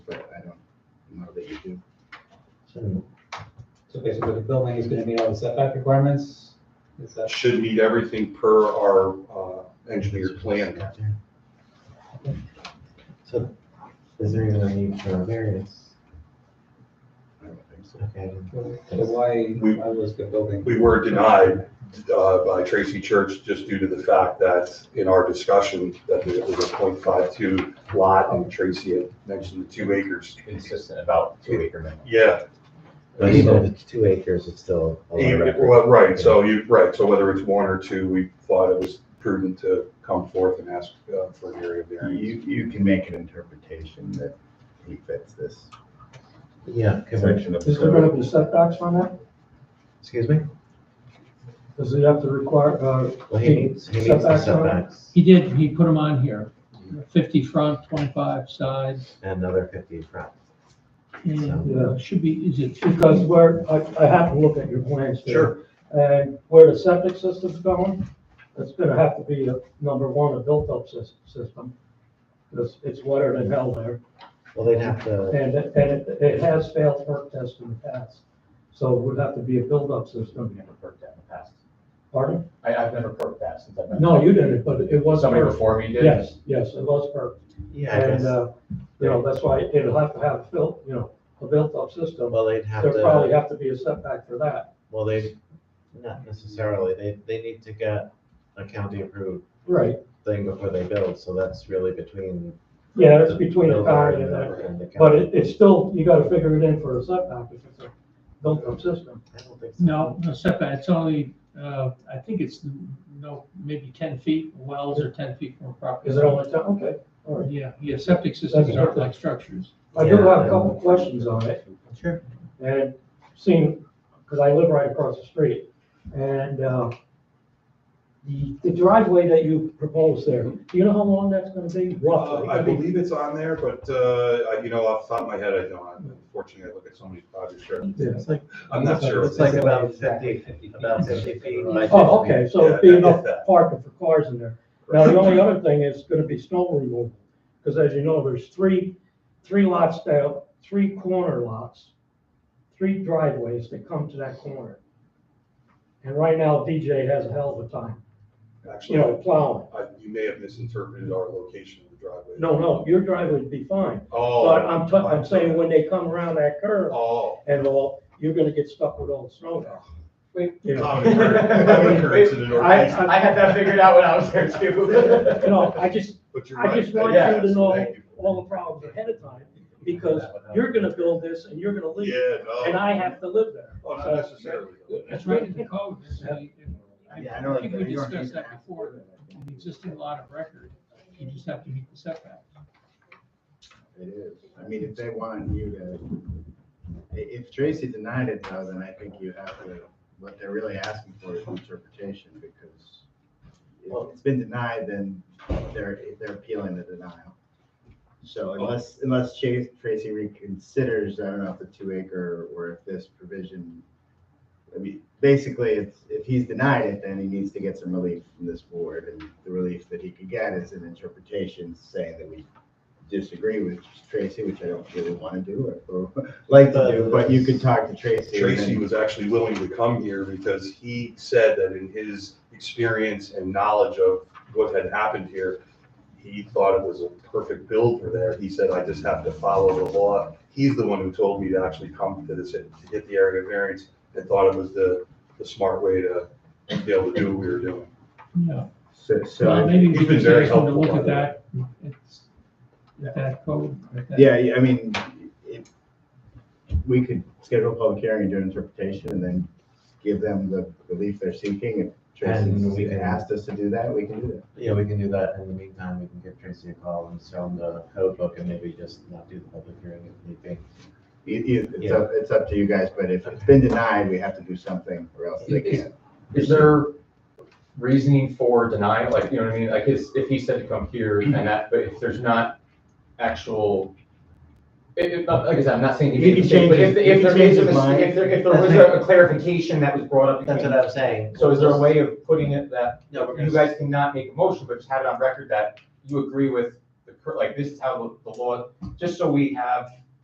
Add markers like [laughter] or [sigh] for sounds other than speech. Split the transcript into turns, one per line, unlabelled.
So basically, the building is gonna meet all the setback requirements, is that?
Should meet everything per our uh, engineer plan.
So is there even a need for a variance?
I don't think so.
Okay.
So why,
We-
why was the building?
We were denied uh, by Tracy Church just due to the fact that in our discussion that it was a .52 lot and Tracy had mentioned the two acres.
consistent about two acre minimum.
Yeah,
But even if it's two acres, it's still a lot of
even-
record.
well, right, so you, right, so whether it's one or two, we thought it was prudent to come forth and ask uh, for an area variance.
You, you can make an interpretation that he fits this
Yeah, can we,
section of the
Is there gonna
code.
be setbacks on that?
excuse me?
Does it have to require, uh,
Well, he needs, he needs the
Setbacks are-
setbacks
He did, he put them on here, fifty front, twenty-five side,
and another fifty front.
and uh, should be, is it? 50?
because where, I, I have to look at your plans there.
Sure,
And where the septic system's going, it's gonna have to be a, number one, a built-up sys- system. Because it's wetter than hell there,
Well, they'd have to,
and, it- and it, it has failed perk tests in the past. So it would have to be a build-up system.
never perked that in the past.
Pardon?
I, I've never perked that since I've been.
No, you didn't, but it was
Somebody
perked.
before me did.
Yes, yes, it was perked.
yeah, I
And,
guess,
uh, you know, that's why it'll have to have built, you know, a built-up system.
well, they'd have
There'll probably
to,
have to be a setback for that.
well, they, not necessarily, they, they need to get a county approved
Right.
thing before they build, so that's really between.
Yeah, it's between the
builder
county and
and
that.
the- and the
But
county.
it, it's still, you gotta figure it in for a setback if it's a built-up system.
I don't think so.
No, no setback, it's only, uh, I think it's, no, maybe ten feet, wells are ten feet from a property.
Is it only, ten? okay, all right.
Yeah, yeah, septic systems aren't like structures.
I do
Yeah,
have a
I
couple
know.
questions on it.
Sure.
And seeing, because I live right across the street, and, uh, the, the driveway that you proposed there, do you know how long that's gonna be
Uh,
roughly?
I believe it's on there, but, uh, I- you know, off the top of my head, I don't, unfortunately, I look at so many projects here.
Yeah.
It's like,
I'm not sure.
it's like about fifty, about fifty feet. by 50
Oh, okay, so
Yeah,
it'd be
yeah,
enough
yeah.
parking for cars in there. Now, the only other thing is gonna be snow removal, because as you know, there's three, three lots down, three corner lots, three driveways that come to that corner. And right now, DJ has a hell of a time, you
Actually,
know, plowing.
I- you may have misinterpreted our location of the driveway.
No, no, your driveway'd be fine,
Oh.
but I'm, t- I'm saying when they come around that curve
Oh.
and all, you're gonna get stuck with all the snow.
Wait.
You know? [laughs]
Common occurrence- common occurrence in the Northeast.
I,
I had that figured out when I was there
I, [laughs]
too.
you know, I just,
But you're
I
right.
just want
Yes,
you to know
thank you.
all the problems ahead of time, because you're gonna build this and you're gonna leave,
Yeah, no.
and I have to live there.
Oh, not necessarily.
It's right in the code. so you-
Yeah, I know,
I think we
you don't
discussed
need
that
to ask.
before, that an existing lot of record, you just have to meet the setback.
It is. I mean, if they want you to, i- if Tracy denied it though, then I think you have to, what they're really asking for is interpretation because if it's been denied, then they're, they're appealing the denial. So unless, unless Chase, Tracy reconsiders, I don't know if the two acre or if this provision, I mean, basically, if, if he's denied it, then he needs to get some relief from this board. And the relief that he could get is an interpretation saying that we disagree with Tracy, which I don't really want to do or or [laughs] like to do, but you could talk to Tracy. and then-
Tracy was actually willing to come here because he said that in his experience and knowledge of what had happened here, he thought it was a perfect build for there. He said, I just have to follow the law. He's the one who told me to actually come to this, to get the area variance and thought it was the, the smart way to be able to do what we were doing.
Yeah,
So, so.
well, maybe we
you've been
could
very
ask them to
helpful,
look at
by the way.
that, it's, at that code. at that-
Yeah, yeah, I mean, if, we could schedule a public hearing and do an interpretation and then give them the relief they're seeking. If
And we
Tracy
can-
asked us to do that, we can do that.
Yeah, we can do that. In the meantime, we can give Tracy a call and show him the code book and maybe just not do the public hearing if need be.
You- you- It's up, it's up to you guys, but if it's been denied, we have to do something or else they can't.
Is there reasoning for denial, like, you know what I mean, like, his, if he said to come here and that, but if there's not actual, if, if, like I said, I'm not saying he
He
made a
can
mistake, but
change
if,
his-
if
he can
there is a
change his mind.
mistake, if there, if there
That's
was
right.
a clarification that was brought up.
That's
between-
what I'm saying.
So is there a way of putting it that
No, we're
you
gonna,
guys cannot make a motion, but just have it on record that you agree with the, cur- like, this is how the- the law, just so we have